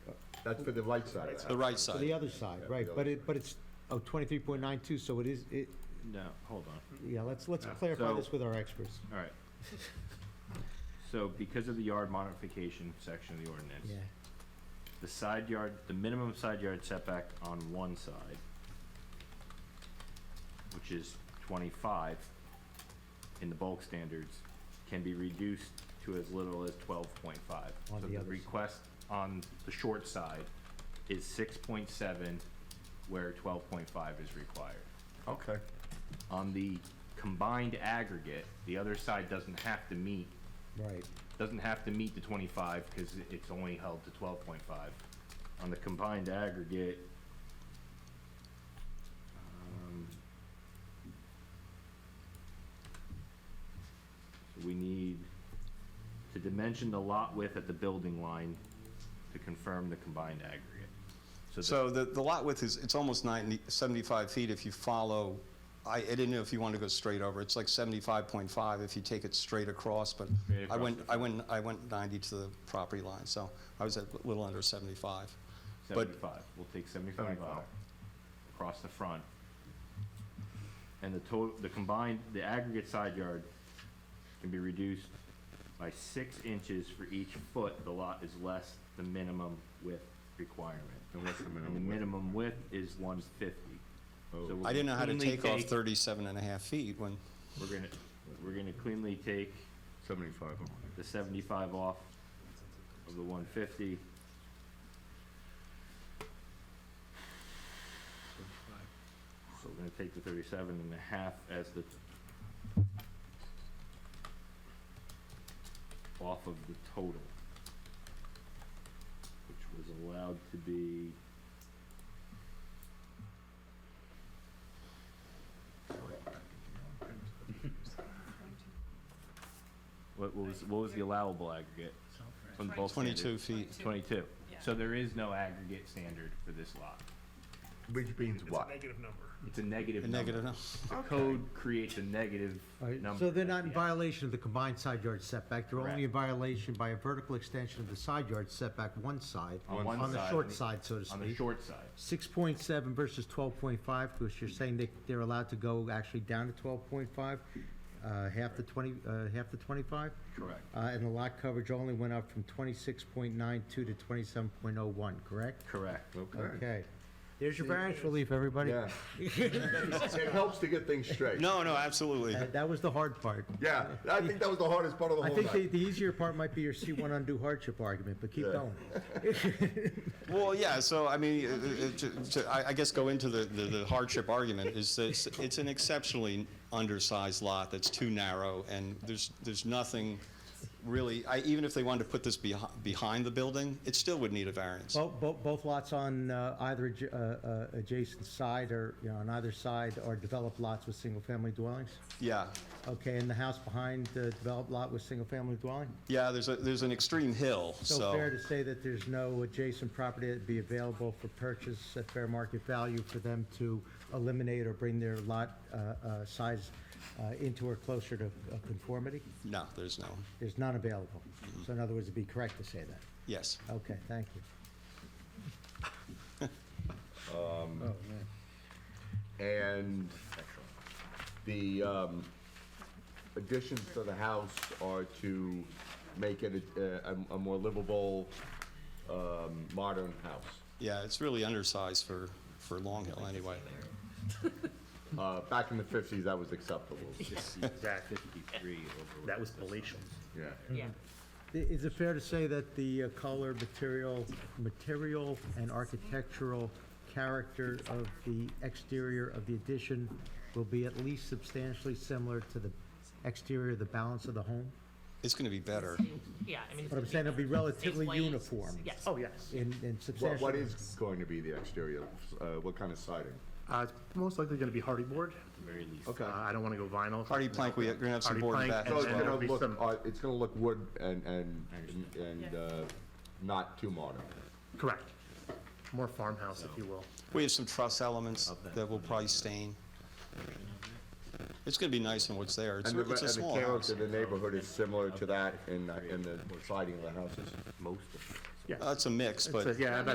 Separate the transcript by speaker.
Speaker 1: That's for the right side of the
Speaker 2: The
Speaker 1: house.
Speaker 2: right
Speaker 3: To
Speaker 2: side.
Speaker 3: the other side, right, but it, but it's, oh, 23.92, so it is, it,
Speaker 4: No, hold on,
Speaker 3: yeah, let's, let's
Speaker 4: Yeah.
Speaker 3: clarify
Speaker 4: So-
Speaker 3: this with our experts.
Speaker 4: all right. So because of the yard modification section of the ordinance,
Speaker 3: Yeah,
Speaker 4: the side yard, the minimum side yard setback on one side, which is twenty-five in the bulk standards, can be reduced to as little as twelve point five.
Speaker 3: On
Speaker 4: So
Speaker 3: the other side.
Speaker 4: Request on the short side is six point seven, where twelve point five is required.
Speaker 1: Okay,
Speaker 4: on the combined aggregate, the other side doesn't have to meet,
Speaker 3: right,
Speaker 4: doesn't have to meet the twenty-five, cause it- it's only held to twelve point five. On the combined aggregate, um, so we need to dimension the lot width at the building line to confirm the combined aggregate. the-
Speaker 2: So the, the lot width is, it's almost 90, 75 feet if you follow, I, I didn't know if you wanted to go straight over. It's like 75.5 if you take it straight across, but
Speaker 4: Straight
Speaker 2: I
Speaker 4: across
Speaker 2: went,
Speaker 4: the-
Speaker 2: I went, I went 90 to the property line, so I was a little under 75. But-
Speaker 4: 75, we'll take 75 out, across the front. And the total, the combined, the aggregate side yard can be reduced by six inches for each foot the lot is less the minimum width requirement.
Speaker 1: and what's the
Speaker 4: And the
Speaker 1: minimum width?
Speaker 4: minimum width is 150.
Speaker 1: Oh.
Speaker 4: So we'll
Speaker 2: I didn't know how to
Speaker 4: cleanly
Speaker 2: take off 37 and a half feet when,
Speaker 4: We're gonna, we're gonna cleanly take
Speaker 1: Seventy-five.
Speaker 4: the 75 off of the 150. So we're gonna take the 37 and a half as the off of the total, which was allowed to be what, what was what was the allowable aggregate from the bulk standard?
Speaker 2: 22 feet.
Speaker 4: 22. So there is no aggregate standard for this lot.
Speaker 1: Which means
Speaker 5: It's a
Speaker 1: what?
Speaker 5: negative number.
Speaker 4: It's a negative
Speaker 2: a
Speaker 4: number.
Speaker 2: negative, no.
Speaker 4: The code creates a negative
Speaker 3: All right,
Speaker 4: number.
Speaker 3: So they're not
Speaker 4: at
Speaker 3: in
Speaker 4: the end.
Speaker 3: violation of the combined side yard setback, they're only in violation by a vertical extension of the side yard setback one side,
Speaker 4: On one
Speaker 3: on the
Speaker 4: side, on
Speaker 3: short
Speaker 4: the-
Speaker 3: side, so to
Speaker 4: On the
Speaker 3: speak.
Speaker 4: short side.
Speaker 3: Six point seven versus twelve point five, because you're saying they, they're allowed to go actually down to twelve point five, uh, half the twenty, uh, half the twenty-five?
Speaker 4: Correct.
Speaker 3: Uh, and the lot coverage only went up from twenty-six point nine two to twenty-seven point oh one, correct?
Speaker 4: Correct.
Speaker 3: Okay. There's your variance relief, everybody.
Speaker 1: Yeah. It helps to get things straight.
Speaker 2: No, no, absolutely.
Speaker 3: Uh, That that was the hard part.
Speaker 1: Yeah, I think that was the hardest part of the
Speaker 3: I
Speaker 1: whole
Speaker 3: think the,
Speaker 1: night.
Speaker 3: the easier part might be your C1 undue hardship argument, but keep
Speaker 1: Yeah.
Speaker 3: going.
Speaker 2: Well, yeah, so I mean, uh, uh, to- to- I I guess go into the- the the hardship argument is that it's- it's an exceptionally undersized lot that's too narrow, and there's, there's nothing really, I- even if they wanted to put this behi- behind the building, it still would need a variance.
Speaker 3: Both, both, both lots on uh, either adj- uh, uh, adjacent side or, you know, on either side are developed lots with single-family dwellings?
Speaker 2: Yeah,
Speaker 3: Okay, and the house behind the developed lot was single-family dwelling?
Speaker 2: yeah, there's, a there's an extreme hill,
Speaker 3: So fair
Speaker 2: so,
Speaker 3: to say that there's no adjacent property that'd be available for purchase at fair market value for them to eliminate or bring their lot uh, uh, size uh, into or closer to uh, conformity?
Speaker 2: no, there's no,
Speaker 3: There's none available. So in other words, it'd be correct to say that.
Speaker 2: yes.
Speaker 3: Okay, thank you.
Speaker 1: Um,
Speaker 3: Oh,
Speaker 1: And the um, additions to the house are to make it a, a- a more livable, um, modern house.
Speaker 2: Yeah, it's really undersized for, for Long Hill, anyway.
Speaker 1: Uh, Back in the fifties, that was acceptable,
Speaker 5: Exactly.
Speaker 4: 53 over.
Speaker 5: That was palatial.
Speaker 1: yeah.
Speaker 6: Yeah,
Speaker 3: I- Is it fair to say that the uh, color, material, material and architectural character of the exterior of the addition will be at least substantially similar to the exterior of the balance of the home?
Speaker 2: It's going to be better.
Speaker 6: yeah, I mean.
Speaker 3: But I'm saying it'll be relatively
Speaker 6: Same weight.
Speaker 3: uniform.
Speaker 6: Yes.
Speaker 5: Oh, yes.
Speaker 3: In, in
Speaker 1: What, what
Speaker 3: substantially,
Speaker 1: is going to be the exterior? Uh, What kind of siding?
Speaker 5: Uh, it's most likely gonna be hardy board.
Speaker 4: Very least.
Speaker 1: Okay.
Speaker 5: Uh, I don't wanna go vinyl.
Speaker 2: Hardy plank, we're going to have some
Speaker 5: Hardy
Speaker 2: board in the
Speaker 5: plank
Speaker 2: back
Speaker 1: So Oh, it's
Speaker 2: as
Speaker 5: and-
Speaker 2: well.
Speaker 1: gonna
Speaker 5: there'll be
Speaker 1: look,
Speaker 5: some-
Speaker 1: uh, it's gonna look wood and, and, and, uh, not too modern.
Speaker 5: Correct. More farmhouse, if you will.
Speaker 2: We have some truss elements that will probably stain. It's gonna be nice in what's there. It's,
Speaker 1: And the,
Speaker 2: it's a
Speaker 1: and the
Speaker 2: small
Speaker 1: character
Speaker 2: house.
Speaker 1: of the neighborhood is similar to that in, in the uh, siding of the houses.
Speaker 4: Most of it.
Speaker 5: Yes.
Speaker 2: Uh, It's a mix, but.
Speaker 5: So, yeah,